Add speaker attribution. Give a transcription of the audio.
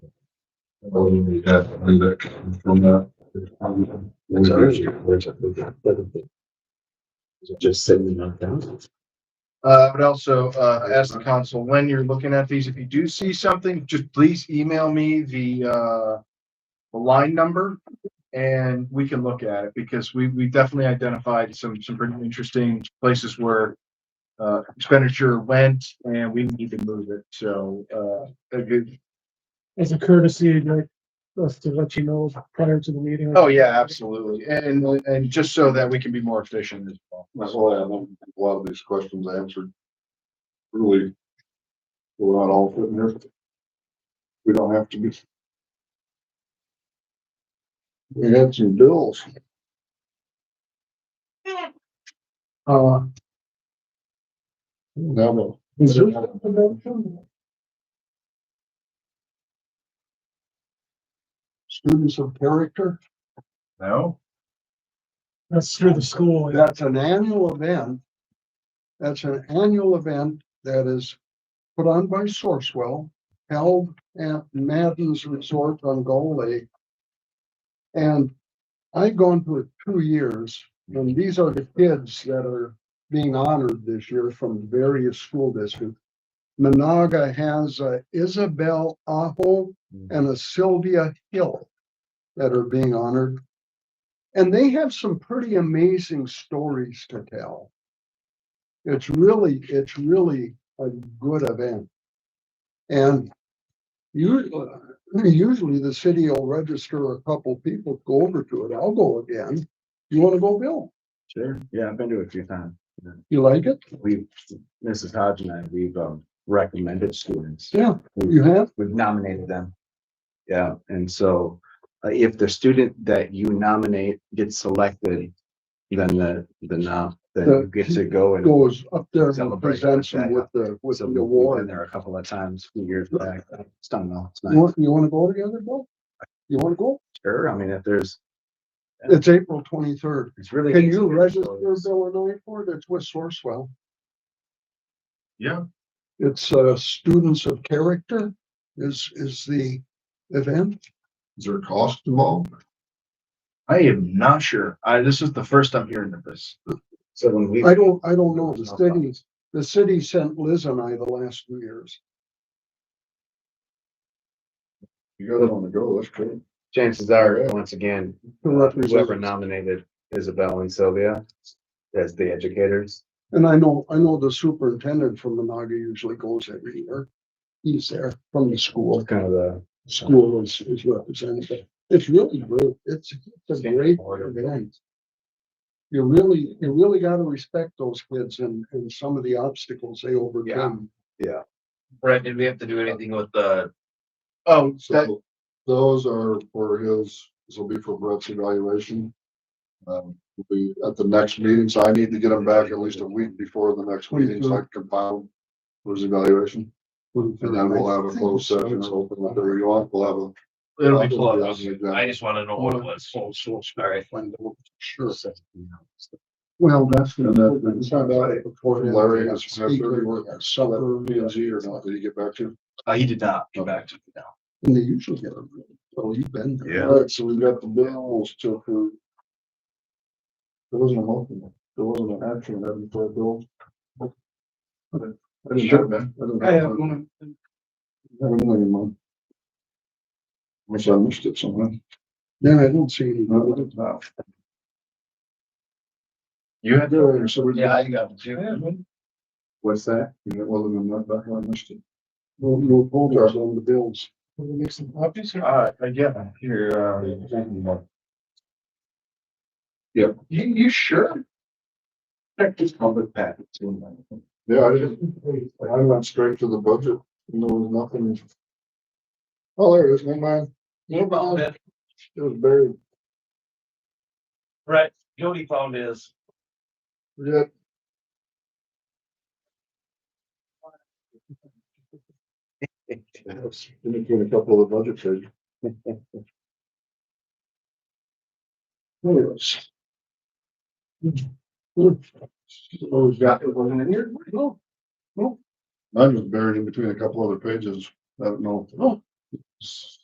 Speaker 1: Well, we have to do that from that.
Speaker 2: Where's ours? Where's it? Is it Just seventy-nine thousand.
Speaker 3: Uh, I would also, uh, ask the council, when you're looking at these, if you do see something, just please email me the, uh, the line number and we can look at it because we, we definitely identified some, some pretty interesting places where uh, expenditure went and we need to move it. So, uh, a good,
Speaker 4: as a courtesy, I'd like us to let you know prior to the meeting.
Speaker 3: oh yeah, absolutely. And, and just so that we can be more efficient as well.
Speaker 1: That's why I want a lot of these questions answered. Really. We're not all fitting here. We don't have to be. We had some bills.
Speaker 4: Uh,
Speaker 1: Now,
Speaker 4: is it-
Speaker 1: students of character,
Speaker 3: No?
Speaker 4: that's through the school.
Speaker 1: that's an annual event. That's an annual event that is put on by Sourcewell, held at Madden's Resort on Gull Lake. And I've gone to it two years, and these are the kids that are being honored this year from various school districts. Monaga has a Isabel Aho and a Sylvia Hill that are being honored. And they have some pretty amazing stories to tell. It's really, it's really a good event. And usually, usually the city will register a couple people to go over to it. I'll go again. You want to go, Bill?
Speaker 2: Sure, yeah, I've been to it a few times.
Speaker 1: You like it?
Speaker 2: We've, Mrs. Hodge and I, we've um, recommended students.
Speaker 1: Yeah, you have?
Speaker 2: We've nominated them. Yeah, and so uh, if the student that you nominate gets selected, then the, the now, then you get to go and.
Speaker 1: Goes up there and
Speaker 2: Celebrate.
Speaker 1: presents them with the, with
Speaker 2: So
Speaker 1: the
Speaker 2: we've been
Speaker 1: award.
Speaker 2: there a couple of times, a few years back. It's done well. It's
Speaker 1: You
Speaker 2: nice.
Speaker 1: want, you want to go together, Bill? You want to go?
Speaker 2: Sure, I mean, if there's,
Speaker 1: It's April twenty-third.
Speaker 2: it's really.
Speaker 1: Can you uh,
Speaker 2: easy.
Speaker 1: register
Speaker 2: It's-
Speaker 1: Illinois for it? It's with Sourcewell.
Speaker 3: Yeah.
Speaker 1: It's uh Students of Character is is the event. Is there a cost involved?
Speaker 3: I am not sure. I, this is the first I'm hearing of this.
Speaker 2: So when we.
Speaker 1: I don't, I don't know. The city, the city sent Liz and I the last two years. You guys want to go, that's great.
Speaker 2: chances are, once again, uh,
Speaker 1: To represent-
Speaker 2: whoever nominated Isabel and Sylvia as the educators.
Speaker 1: And I know, I know the superintendent from Monaga usually goes every year. He's there from the school.
Speaker 2: What kind of the?
Speaker 1: school is, is represented. It's really great. It's, it's a great event. You really, you really gotta respect those kids and, and some of the obstacles they overcome.
Speaker 5: Brett, did we have to do anything with the,
Speaker 3: Oh, that,
Speaker 1: Those are for his, this will be for Brett's evaluation. Um, will be at the next meeting, so I need to get them back at least a week before the next meeting, so I can compile his evaluation. And then we'll have a closed session, so whatever you want, we'll have a
Speaker 3: it'll be
Speaker 1: Yeah.
Speaker 3: close.
Speaker 5: I just wanna know what it was. All right.
Speaker 1: Sure. Well, that's. Larry has work at Summit, P and Z or not, did he get back to? you?
Speaker 3: Uh, he did not get back to me now.
Speaker 1: And they usually get them. Well, you've been there.
Speaker 2: Yeah.
Speaker 1: Alright, so we've got the bills to approve. There wasn't a motion, there wasn't an action item for a bill. I didn't have that. I didn't have that. I haven't done it in a month. Wish I missed it somewhere. Yeah, I don't see any. No, I didn't have.
Speaker 3: You had to.
Speaker 1: Yeah, uh, so we-
Speaker 5: Yeah, I got two.
Speaker 2: What's that?
Speaker 1: Yeah, well, then I'm not back on this. Well, no, hold ours on the bills.
Speaker 4: Will we make some copies or-
Speaker 3: Uh, yeah, here, uh.
Speaker 2: um,
Speaker 1: Yep.
Speaker 3: You, you sure?
Speaker 2: Check this public packet.
Speaker 1: Yeah, I didn't, I went straight to the budget, and there was nothing. Oh, there it is, never mind,
Speaker 5: You found it,
Speaker 1: it was buried,
Speaker 5: Brett, Jody found his.
Speaker 1: forget. In between a couple of the budget pages. Anyways. Hmm. Oh, we got it wasn't in here? Oh, No. No. Mine was buried in between a couple other pages, I don't know. No.